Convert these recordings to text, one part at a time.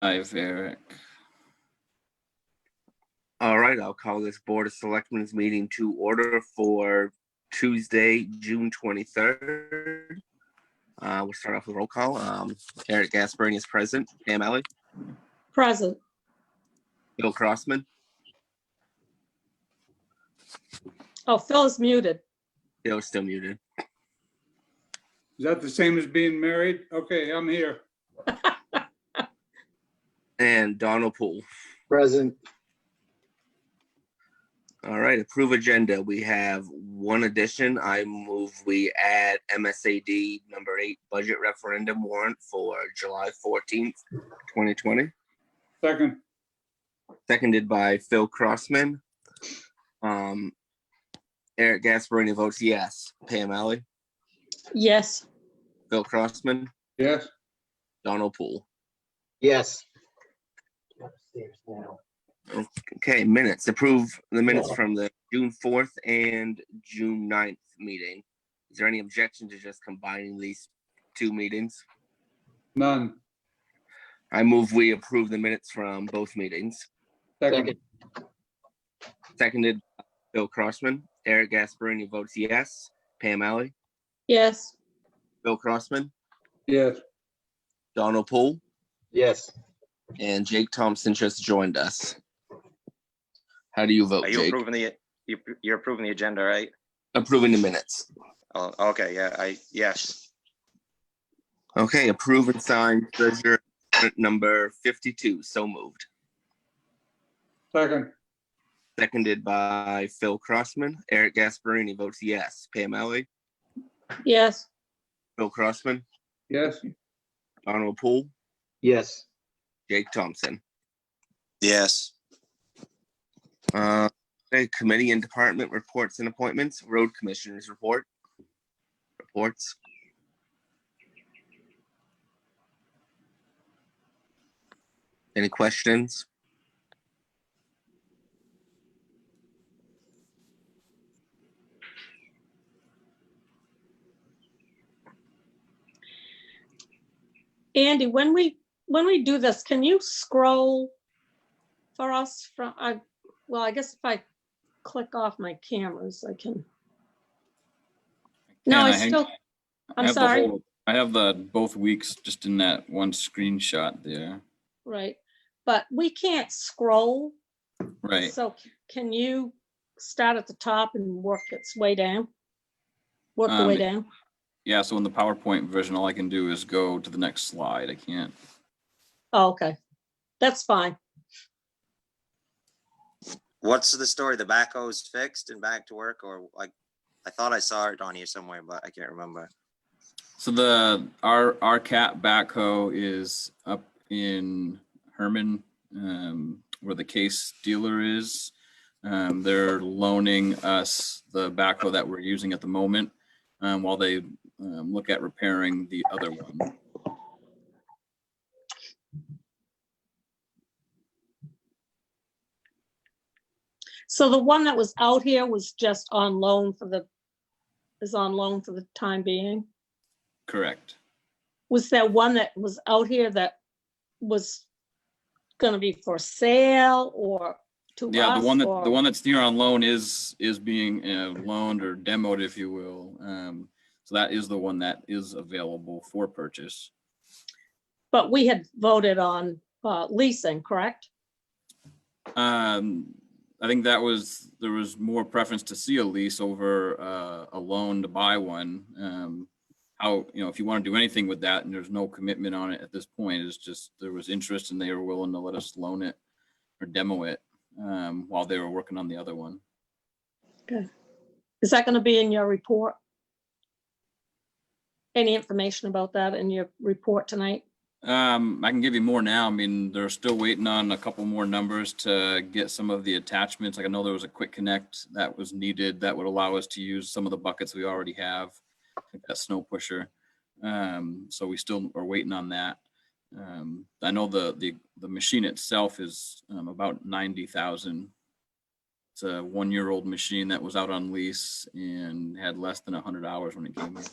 Five, Eric. All right, I'll call this Board of Selectmen's meeting to order for Tuesday, June twenty-third. Uh, we'll start off with roll call. Um, Eric Gasperini is present, Pam Alley, Present. Bill Crossman. Oh, Phil is muted. Bill is still muted. Is that the same as being married? Okay, I'm here. And Donald Poole. Present, All right, approve agenda. We have one addition. I move we add MSAD number eight budget referendum warrant for July fourteenth, twenty twenty. Second, seconded by Phil Crossman. Um, Eric Gasparini votes yes. Pam Alley, Yes, Phil Crossman, yes, Donald Poole. yes. Okay, minutes. Approve the minutes from the June fourth and June 9th meeting. Is there any objection to just combining these two meetings? none. I move we approve the minutes from both meetings. Second, Seconded by Phil Crossman. Eric Gasparini votes yes. Pam Alley, yes, Phil Crossman, yes, Donald Poole. Yes, And Jake Thompson just joined us. How do you vote, Are you Oh, Jake? approving the, you- you're approving the agenda, right? Approving the minutes. Oh, okay, yeah, I, yes, Okay, approve and sign treasurer number fifty-two, so moved. second, Seconded by Phil Crossman. Eric Gasparini votes yes. Pam Alley, yes, Phil Crossman, yes, Donald Poole, yes, Jake Thompson. yes, Uh, okay, committee and department reports and appointments, road commissioners report. Reports. Any questions? Andy, when we, when we do this, can you scroll for us from, I, well, I guess if I click off my cameras, I can. No, Can I hang- still, I I'm have the sorry, whole- I have the both weeks just in that one screenshot there. right, but we can't scroll, Right. so can you start at the top and work its way down? Work the Um, way down? Yeah, so in the PowerPoint version, all I can do is go to the next slide. I can't. Oh, okay, that's fine. what's the story, the backhoe's fixed and back to work, or like, I thought I saw it on here somewhere, but I can't remember. So the, our, our cat backhoe is up in Herman, um, where the case dealer is. Um, they're loaning us the backhoe that we're using at the moment, um, while they, um, look at repairing the other one. So the one that was out here was just on loan for the, is on loan for the time being? Correct. Was there one that was out here that was gonna be for sale or to us? Yeah, the one that, the or- one that's here on loan is, is being uh, loaned or demoed, if you will. Um, So that is the one that is available for purchase. But we had voted on uh, leasing, correct? Um, I think that was, there was more preference to see a lease over uh, a loan to buy one. Um, How, you know, if you want to do anything with that and there's no commitment on it at this point, it's just, there was interest and they were willing to let us loan it or demo it um, while they were working on the other one. Is that gonna be in your report? Any information about that in your report tonight? Um, I can give you more now. I mean, they're still waiting on a couple more numbers to get some of the attachments. Like I know there was a quick connect that was needed that would allow us to use some of the buckets we already have, like that snow pusher. Um, so we still are waiting on that. Um, I know the, the, the machine itself is, um, about ninety thousand. It's a one-year-old machine that was out on lease and had less than a hundred hours when it came in.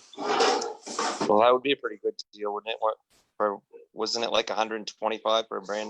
Well, that would be a pretty good deal, wouldn't it? What, for wasn't it like hundred and twenty-five for a brand